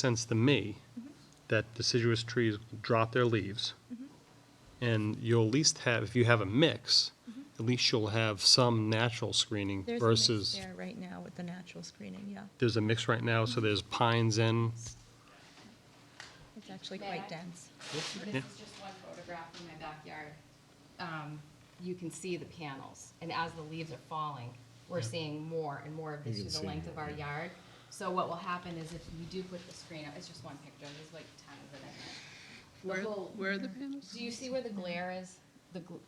sense to me that deciduous trees drop their leaves. And you'll at least have, if you have a mix, at least you'll have some natural screening There's a mix versus, There right now with the natural screening, yeah. there's a mix right now, so there's pines in. It's actually quite dense. Yeah. This is just one photograph in my backyard. Um, You can see the panels, and as the leaves are falling, we're seeing more and more of this You can through see the length more, of our yard. So what will happen is if we do put the screen up, it's just one picture, there's like ten of it. in there. Where, The whole- where are the panels? Do you see where the glare is? The, gl-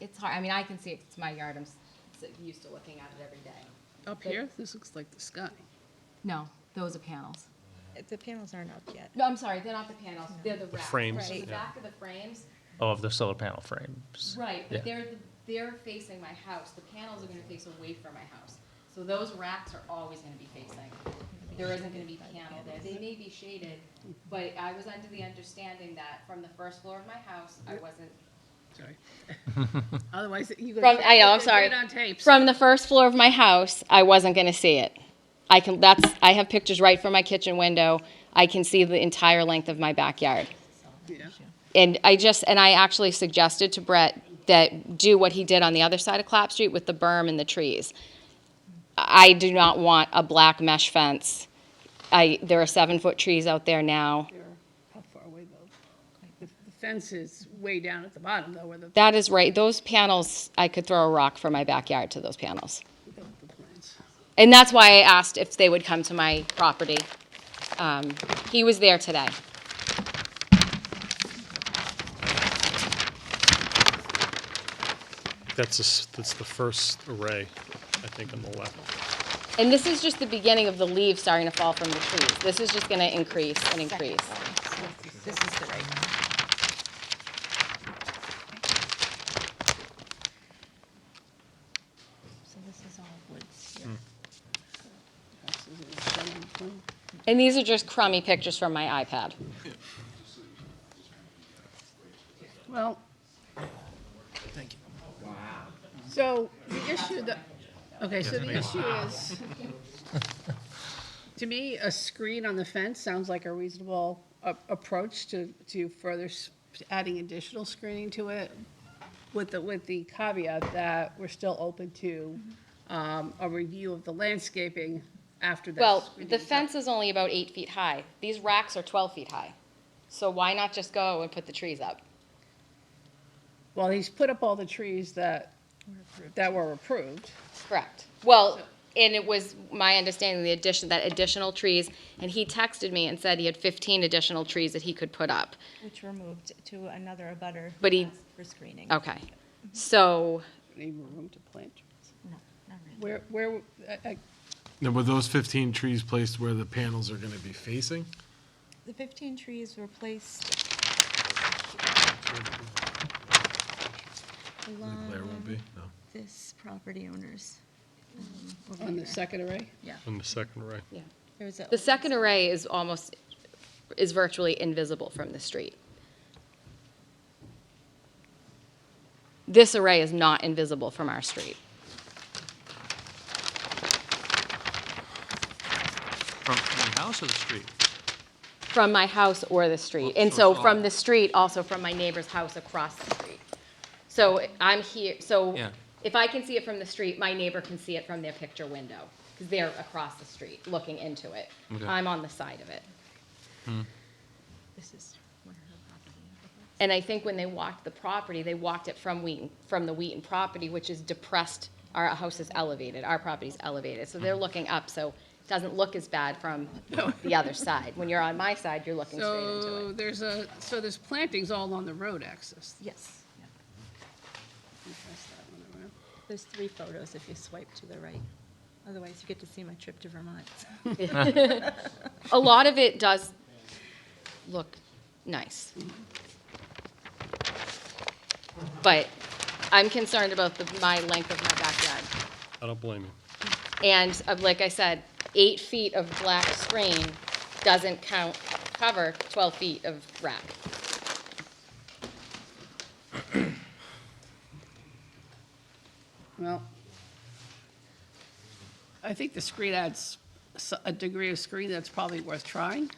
it's hard, I mean, I can see it, 'cause it's my yard, I'm s- s- used to looking at it every day. Up here? This looks like the sky. No, those are panels. The panels aren't up yet. No, I'm sorry, they're not the panels, they're the racks. frames, So Right. the yeah. back of the frames, Oh, of the solar panel frames. Right, Yeah. but they're, they're facing my house, the panels are gonna face away from my house. So those racks are always gonna be facing. There isn't gonna be panel there, they may be shaded, but I was under the understanding that from the first floor of my house, I wasn't. Sorry. Otherwise, you. From, I know, I'm Get sorry. it on tape. From the first floor of my house, I wasn't gonna see it. I can, that's, I have pictures right from my kitchen window, I can see the entire length of my backyard. Yeah. And I just, and I actually suggested to Brett that do what he did on the other side of Clap Street with the berm and the trees. I do not want a black mesh fence. I, there are seven-foot trees out there now. They're, how far away though? The the fence is way down at the bottom though, where the, That is right, those panels, I could throw a rock from my backyard to those panels. without the plans. And that's why I asked if they would come to my property. Um, He was there today. That's, the s- that's the first array, I think, on the left. And this is just the beginning of the leaves starting to fall from the trees. This is just gonna increase and increase. This is the right one. So this is all woods here. Hmm. House is in the center of the plan. And these are just crummy pictures from my iPad. Well. Thank you. Wow. So the issue that, okay, so the issue is, to me, a screen on the fence sounds like a reasonable a- approach to, to further s- adding additional screening to it with the, with the caveat that we're still open to um, a review of the landscaping after that. Well, the screening's up. fence is only about eight feet high. These racks are 12 feet high. So why not just go and put the trees up? Well, he's put up all the trees that, that were approved. Correct. Well, and it was my understanding, the addition, that additional trees, and he texted me and said he had 15 additional trees that he could put up. Which were moved to another abutter. But he- Oh. who asked For screening. Okay. So, Any more room to plant trees? No, not really. Where, where, uh, I- I- Now, were those 15 trees placed where the panels are going to be facing? The 15 trees were placed The glare won't along be, no. this property owner's. um, over on the here. second array? Yeah. On the second array. yeah. There was a- The second array is almost, is virtually invisible from the street. This array is not invisible from our street. From the house or the street? From my house or the street. And So so it's all- from the street, also from my neighbor's house across the street. So I'm here, so Yeah. if I can see it from the street, my neighbor can see it from their picture window, because they're across the street, looking into it. Okay. I'm on the side of it. This is where her property is. And I think when they walked the property, they walked it from Wheaton, from the Wheaton property, which is depressed. Our house is elevated, our property's elevated, so Mm-hmm. they're looking up, so it doesn't look as bad from the other side. When you're on my side, you're looking straight into So it. there's a, so there's plantings all along the road axis. Yes. yeah. You pass that one around. There's three photos if you swipe to the right. Otherwise, you get to see my trip to Vermont. A lot of it does look nice. But I'm concerned about the, my length of my backyard. I don't blame you. And uh, like I said, eight feet of black screen doesn't count, cover 12 feet of rack. Well, I think the screen adds s- a degree of screen that's probably worth trying.